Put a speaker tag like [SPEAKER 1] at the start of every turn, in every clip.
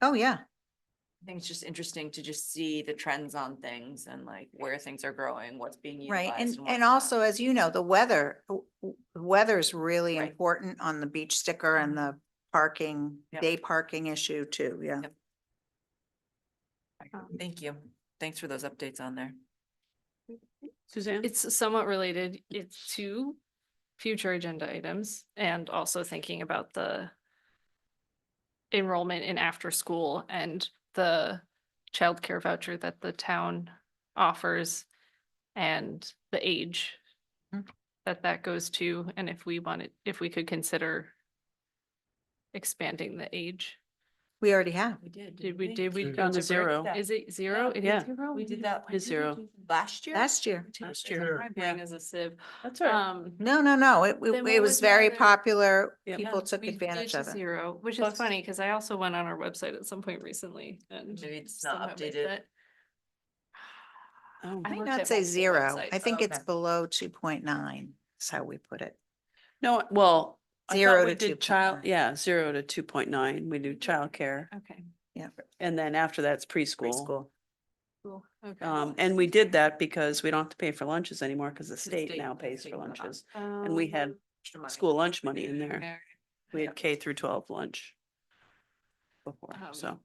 [SPEAKER 1] Oh, yeah.
[SPEAKER 2] I think it's just interesting to just see the trends on things and like where things are growing, what's being utilized.
[SPEAKER 1] Right. And,
[SPEAKER 2] what's
[SPEAKER 1] and
[SPEAKER 2] not.
[SPEAKER 1] also, as you know, the weather, w- w- weather's really
[SPEAKER 2] Right.
[SPEAKER 1] important on the beach sticker and
[SPEAKER 3] Mm-hmm.
[SPEAKER 1] the parking,
[SPEAKER 2] Yep.
[SPEAKER 1] day parking issue too. Yeah.
[SPEAKER 2] Yep. Thank you. Thanks for those updates on there.
[SPEAKER 4] Suzanne?
[SPEAKER 3] It's somewhat related. It's to future agenda items and also thinking about the enrollment in after-school and the childcare voucher that the town offers and the age
[SPEAKER 1] Mm.
[SPEAKER 3] that that goes to, and if we wanted, if we could consider expanding the age.
[SPEAKER 1] We already have.
[SPEAKER 2] We
[SPEAKER 3] Did we, did we?
[SPEAKER 4] It's
[SPEAKER 3] go
[SPEAKER 4] down to
[SPEAKER 3] to break?
[SPEAKER 4] zero.
[SPEAKER 2] that?
[SPEAKER 3] Is it zero? It is
[SPEAKER 4] Yeah.
[SPEAKER 3] zero?
[SPEAKER 2] We did that.
[SPEAKER 4] It is zero.
[SPEAKER 2] Last year?
[SPEAKER 1] Last year.
[SPEAKER 4] Last
[SPEAKER 3] Jeez,
[SPEAKER 4] year,
[SPEAKER 3] My
[SPEAKER 4] yeah.
[SPEAKER 3] brain is a sieve.
[SPEAKER 4] That's
[SPEAKER 3] Um.
[SPEAKER 1] No, no, no. It,
[SPEAKER 3] Then
[SPEAKER 1] it-
[SPEAKER 3] what
[SPEAKER 1] it
[SPEAKER 3] was
[SPEAKER 1] was
[SPEAKER 3] the
[SPEAKER 1] very
[SPEAKER 3] other-
[SPEAKER 1] popular.
[SPEAKER 4] Yep.
[SPEAKER 1] People
[SPEAKER 3] Yeah,
[SPEAKER 1] took
[SPEAKER 3] we
[SPEAKER 1] advantage
[SPEAKER 3] did
[SPEAKER 1] of it.
[SPEAKER 3] Zero, which is
[SPEAKER 4] Plus-
[SPEAKER 3] funny, because I also went on our website at some point recently and.
[SPEAKER 2] Maybe it's
[SPEAKER 3] somehow
[SPEAKER 2] not
[SPEAKER 3] missed
[SPEAKER 2] updated.
[SPEAKER 3] it.
[SPEAKER 4] Oh.
[SPEAKER 3] I
[SPEAKER 1] I would
[SPEAKER 3] worked
[SPEAKER 1] not
[SPEAKER 3] at
[SPEAKER 1] say
[SPEAKER 3] multiple
[SPEAKER 1] zero.
[SPEAKER 3] websites. Oh,
[SPEAKER 1] I think
[SPEAKER 2] Okay.
[SPEAKER 1] it's below two point nine is how we put it.
[SPEAKER 4] No, well. I thought
[SPEAKER 1] Zero
[SPEAKER 4] we
[SPEAKER 1] to
[SPEAKER 4] did
[SPEAKER 1] 2.9.
[SPEAKER 4] Child, yeah, zero to two point nine. We do childcare.
[SPEAKER 3] Okay,
[SPEAKER 4] And then after that's preschool.
[SPEAKER 1] Preschool.
[SPEAKER 3] cool, okay.
[SPEAKER 4] Um, and we did that because we don't have to pay for lunches anymore because the
[SPEAKER 2] The
[SPEAKER 4] state
[SPEAKER 2] state-
[SPEAKER 4] now
[SPEAKER 2] the
[SPEAKER 4] pays
[SPEAKER 2] state
[SPEAKER 4] for
[SPEAKER 2] cut off.
[SPEAKER 4] lunches. And we had
[SPEAKER 3] Um,
[SPEAKER 2] Extra money.
[SPEAKER 4] school lunch money in there.
[SPEAKER 3] okay.
[SPEAKER 4] We had K through twelve lunch before,
[SPEAKER 3] Um,
[SPEAKER 4] so.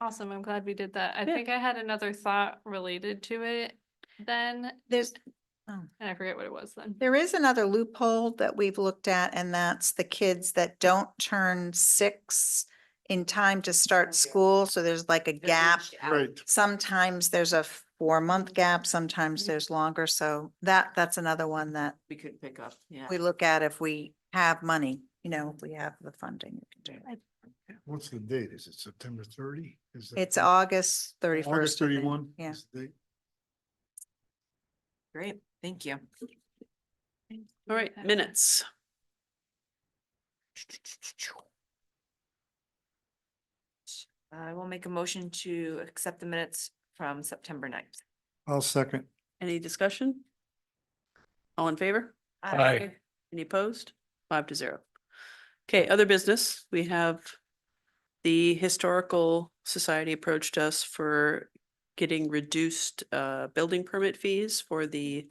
[SPEAKER 3] Awesome, I'm glad we did that. I
[SPEAKER 4] Yeah.
[SPEAKER 3] think I had another thought related to it then,
[SPEAKER 1] There's,
[SPEAKER 3] and I forget what it was then.
[SPEAKER 1] There is another loophole that we've looked at, and that's the kids that don't turn six in time to
[SPEAKER 2] Oh, yeah.
[SPEAKER 1] start school, so there's like a
[SPEAKER 2] They're
[SPEAKER 1] gap.
[SPEAKER 2] aged out.
[SPEAKER 5] Right,
[SPEAKER 1] Sometimes there's a four-month gap, sometimes
[SPEAKER 3] Mhm.
[SPEAKER 1] there's longer, so that, that's another one that
[SPEAKER 2] We could pick up, yeah.
[SPEAKER 1] we look at if we have money, you know, if we have the funding. we can do it.
[SPEAKER 5] what's the date? Is it September thirty? Is that
[SPEAKER 1] It's
[SPEAKER 5] the-
[SPEAKER 1] August thirty-first.
[SPEAKER 5] August thirty-one?
[SPEAKER 1] Yeah.
[SPEAKER 5] is the date?
[SPEAKER 2] Great, thank you.
[SPEAKER 4] All right,
[SPEAKER 3] Okay.
[SPEAKER 4] minutes.
[SPEAKER 2] I will make a motion to accept the minutes from September ninth.
[SPEAKER 5] I'll second.
[SPEAKER 4] Any discussion? All in favor? Any opposed? Five to zero. Okay, other business, we have the Historical Society approached us for getting reduced uh building permit fees for the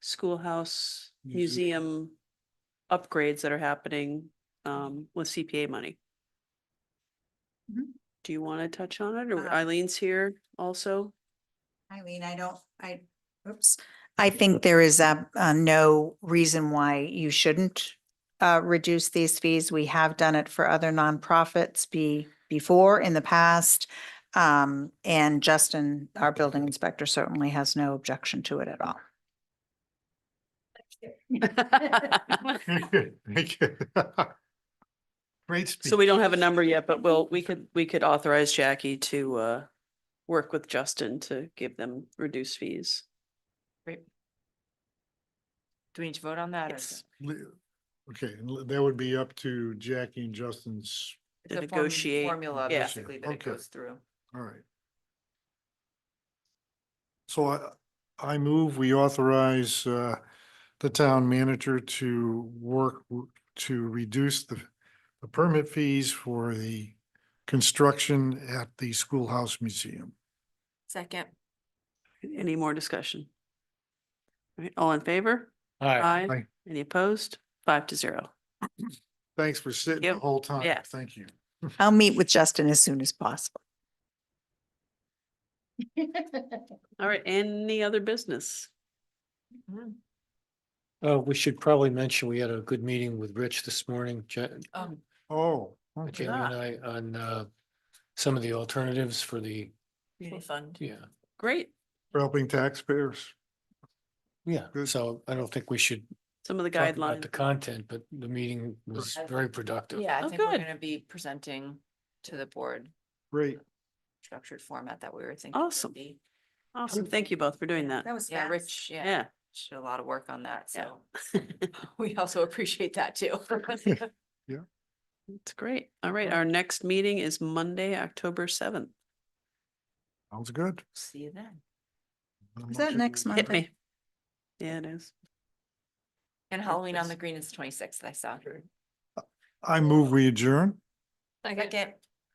[SPEAKER 4] schoolhouse
[SPEAKER 5] Museum.
[SPEAKER 4] museum upgrades that are happening um with CPA money.
[SPEAKER 1] Mhm.
[SPEAKER 4] Do you want to touch on it? Or
[SPEAKER 1] Uh,
[SPEAKER 4] Eileen's here also?
[SPEAKER 1] I mean, I don't, I, oops, I think there is a, uh no reason why you shouldn't uh, reduce these fees. We have done it for other nonprofits be, before in the past. Um, and Justin, our building inspector certainly has no objection to it at all.
[SPEAKER 5] Thank you. Great speech.
[SPEAKER 4] So we don't have a number yet, but we'll, we could, we could authorize Jackie to uh work with Justin to give them reduced fees.
[SPEAKER 2] Do we need to vote on that? or is
[SPEAKER 4] Yes.
[SPEAKER 5] Le- Okay, and le- that would be up to Jackie and Justin's,
[SPEAKER 2] it-
[SPEAKER 4] To
[SPEAKER 2] it's a form-
[SPEAKER 4] negotiate,
[SPEAKER 2] Formula
[SPEAKER 4] yeah.
[SPEAKER 2] basically that it
[SPEAKER 5] Okay.
[SPEAKER 2] goes through.
[SPEAKER 5] all right. So I, I move, we authorize, uh, the town manager to work w- to reduce the, the permit fees for the construction at the schoolhouse museum.
[SPEAKER 2] Second,
[SPEAKER 4] Any more discussion? All right, all in favor? Aye.
[SPEAKER 5] Aye.
[SPEAKER 4] Any opposed? Five to zero.
[SPEAKER 5] Thanks for sitting the
[SPEAKER 4] Yep.
[SPEAKER 5] whole time.
[SPEAKER 4] Yeah.
[SPEAKER 5] Thank you.
[SPEAKER 1] I'll meet with Justin as soon as possible.
[SPEAKER 4] All right, any other business?
[SPEAKER 2] Mm,
[SPEAKER 6] Uh, we should probably mention, we had a good meeting with Rich this morning, Ja-
[SPEAKER 2] um,
[SPEAKER 5] Oh, okay.
[SPEAKER 6] Jamie and I, on, uh, some of the alternatives for the,
[SPEAKER 2] community fund.
[SPEAKER 6] yeah,
[SPEAKER 4] Great.
[SPEAKER 5] For helping taxpayers.
[SPEAKER 6] yeah.
[SPEAKER 5] Good.
[SPEAKER 6] So I don't think we should
[SPEAKER 4] Some of the
[SPEAKER 6] talk about the
[SPEAKER 4] guidelines.
[SPEAKER 6] content, but the meeting was
[SPEAKER 2] Right.
[SPEAKER 6] very productive.
[SPEAKER 2] Yeah, I
[SPEAKER 4] Oh,
[SPEAKER 2] think we're
[SPEAKER 4] good.
[SPEAKER 2] gonna be presenting to the board
[SPEAKER 5] Great.
[SPEAKER 2] structured format that we were thinking. would
[SPEAKER 4] Awesome.
[SPEAKER 2] be.
[SPEAKER 4] Awesome. Thank you both for doing that.
[SPEAKER 1] That was
[SPEAKER 2] Yeah,
[SPEAKER 1] fast.
[SPEAKER 2] Rich, yeah,
[SPEAKER 4] Yeah.
[SPEAKER 2] she did a lot of work on that,
[SPEAKER 4] Yeah.
[SPEAKER 2] so we also appreciate that too.
[SPEAKER 4] It's great. All right, our next meeting is Monday, October seventh.
[SPEAKER 5] Sounds good.
[SPEAKER 2] See you then.
[SPEAKER 1] Is that next month?
[SPEAKER 4] Hit me. Yeah, it is.
[SPEAKER 2] And Halloween on the Green is twenty-sixth, I saw.
[SPEAKER 5] I move, we adjourn.
[SPEAKER 3] Second.
[SPEAKER 2] Second,